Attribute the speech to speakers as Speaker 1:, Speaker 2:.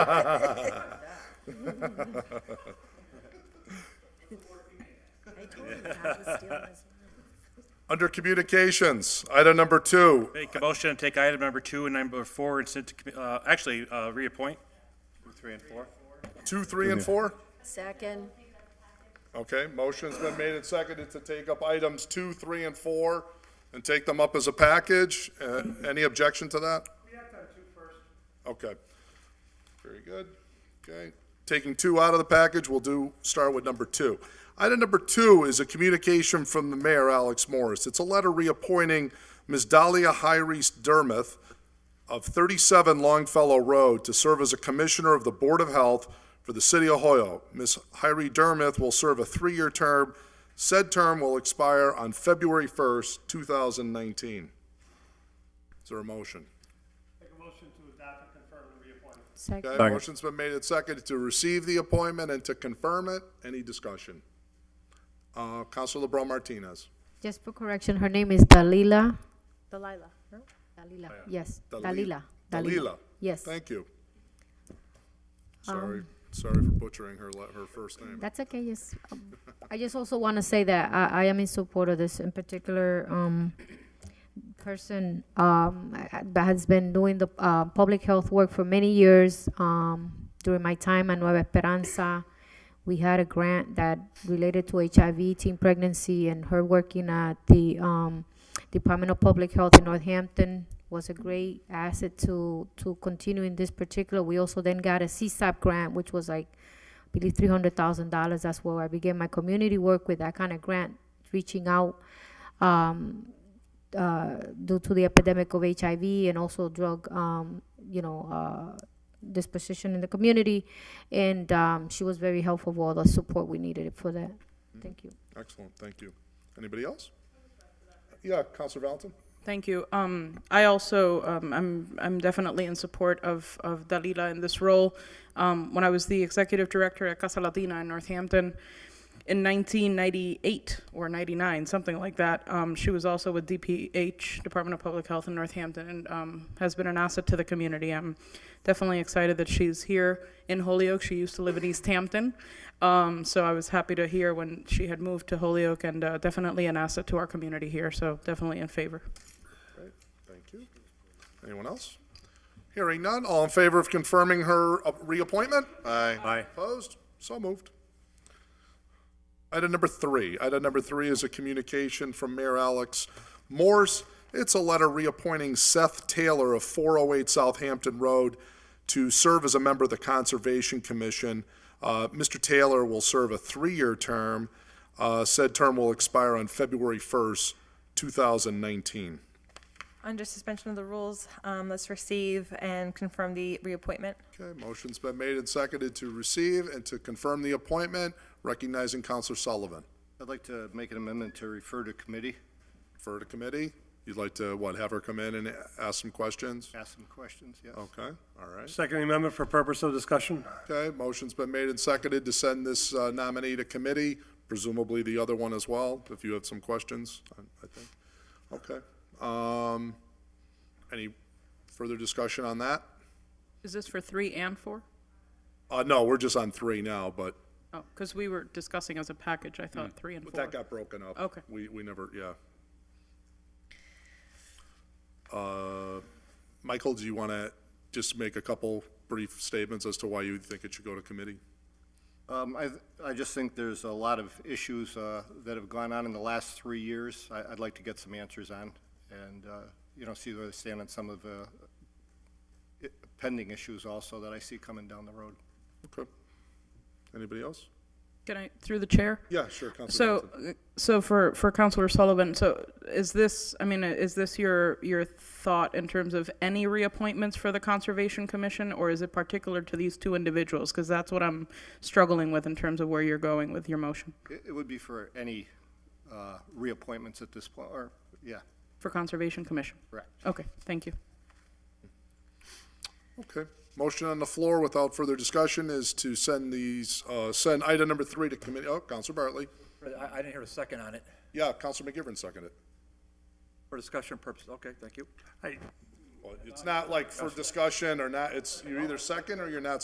Speaker 1: I told him not to steal his.
Speaker 2: Under communications, item number two,
Speaker 3: Make a motion to take item number two and number four and send to, commu- uh, actually, uh, reappoint. Three and four.
Speaker 2: two, three, and four?
Speaker 1: Second,
Speaker 2: Okay, motion's been made and seconded to take up items two, three, and four, and take them up as a package. Uh, Any objection to that?
Speaker 4: We have to have two first.
Speaker 2: Okay. Very good. Okay. Taking two out of the package, we'll do, start with number two. Item number two is a communication from the mayor, Alex Morris. It's a letter reappointing Ms. Dahlia Hyres Dermuth of 37 Longfellow Road to serve as a commissioner of the Board of Health for the city of Hoyoke. Ms. Hyres Dermuth will serve a three-year term. Said term will expire on February 1st, 2019. Is there a motion?
Speaker 4: Make a motion to adopt and confirm the reappointment.
Speaker 1: second,
Speaker 2: Okay, motion's been made and seconded to receive the appointment and to confirm it. Any discussion? Uh, Counsel LeBron Martinez.
Speaker 5: Just for correction, her name is Dalila. Dalila. Dalila, yes,
Speaker 2: Dalil-
Speaker 5: Dalila.
Speaker 2: Dalila.
Speaker 5: Yes, Um,
Speaker 2: Thank you. Sorry, sorry for butchering her, la- her first name.
Speaker 5: that's okay, yes. Um, I just also want to say that I, I am in support of this in particular, um, person, um, I- I- that has been doing the, uh, public health work for many years, um, during my time at Nueva Esperanza. We had a grant that related to HIV, teen pregnancy, and her working at the, um, Department of Public Health in Northampton was a great asset to, to continue in this particular. We also then got a CSAP grant, which was like, I believe, three hundred thousand dollars. That's where I began my community work with that kind of grant, reaching out, um, uh, due to the epidemic of HIV and also drug, um, you know, uh, disposition in the community. And, um, she was very helpful with all the support we needed for that. Thank you.
Speaker 2: Excellent, thank you. Anybody else? Yeah, Counsel Valentin?
Speaker 6: Thank you. Um, I also um, I'm I'm definitely in support of of Dalila in this role. Um, when I was the executive director at Casa Latina in Northampton in 1998 or 99, something like that, um, she was also with DPH Department of Public Health in Northampton and um, has been an asset to the community. I'm definitely excited that she's here in Holyoke. She used to live in East Hampton, um, so I was happy to hear when she had moved to Holyoke and uh, definitely an asset to our community here. So definitely in favor.
Speaker 2: Great, thank you. Anyone else? Hearing none, all in favor of confirming her uh, reappointment? Aye.
Speaker 3: Aye.
Speaker 2: Opposed? So moved. Item number three. Item number three is a communication from Mayor Alex Morse. It's a letter reappointing Seth Taylor of 408 Southampton Road to serve as a member of the Conservation Commission. Uh, Mr. Taylor will serve a three-year term. Uh, Said term will expire on February 1st, 2019.
Speaker 7: Under suspension of the rules, um, let's receive and confirm the reappointment.
Speaker 2: Okay, motion's been made and seconded to receive and to confirm the appointment, recognizing Counselor Sullivan.
Speaker 8: I'd like to make an amendment to refer to committee,
Speaker 2: Refer to committee. You'd like to, what, have her come in and ask some questions?
Speaker 8: ask some questions, yes.
Speaker 2: Okay, all right.
Speaker 9: Oh. Second amendment for purpose of discussion?
Speaker 2: Okay, motion's been made and seconded to send this uh, nominee to committee, presumably the other one as well, if you have some questions, I I think. Okay. Um, Any further discussion on that?
Speaker 6: Is this for three and four?
Speaker 2: Uh, no, we're just on three now, but
Speaker 6: Oh, because we were discussing as a package, I thought three and
Speaker 2: But
Speaker 6: four.
Speaker 2: Mm. that got broken up.
Speaker 6: Okay.
Speaker 2: We, we never, yeah. Uh, Michael, do you want to just make a couple brief statements as to why you think it should go to committee?
Speaker 8: Um, I, I just think there's a lot of issues, uh, that have gone on in the last three years. I, I'd like to get some answers on and, uh, you know, see where they stand on some of the i- pending issues also that I see coming down the road.
Speaker 2: Okay. Anybody else?
Speaker 6: Can I, through the chair?
Speaker 2: Yeah, sure, Counselor
Speaker 6: So, uh,
Speaker 2: Johnson.
Speaker 6: so for, for Counselor Sullivan, so is this, I mean, uh, is this your, your thought in terms of any reappointments for the Conservation Commission? Or is it particular to these two individuals? Because that's what I'm struggling with in terms of where you're going with your motion
Speaker 8: It, it would be for any, uh, reappointments at this point, or, yeah,
Speaker 6: for Conservation Commission.
Speaker 8: correct.
Speaker 6: Okay, thank you.
Speaker 2: Okay. Motion on the floor without further discussion is to send these, uh, send item number three to committee. Oh, Counselor Bartley.
Speaker 9: I, I didn't hear a second on it.
Speaker 2: Yeah, Counselor McGivern seconded it.
Speaker 9: For discussion purposes, okay, thank you. I,
Speaker 2: Well, It's not like for discussion or not, it's, you're either second or you're not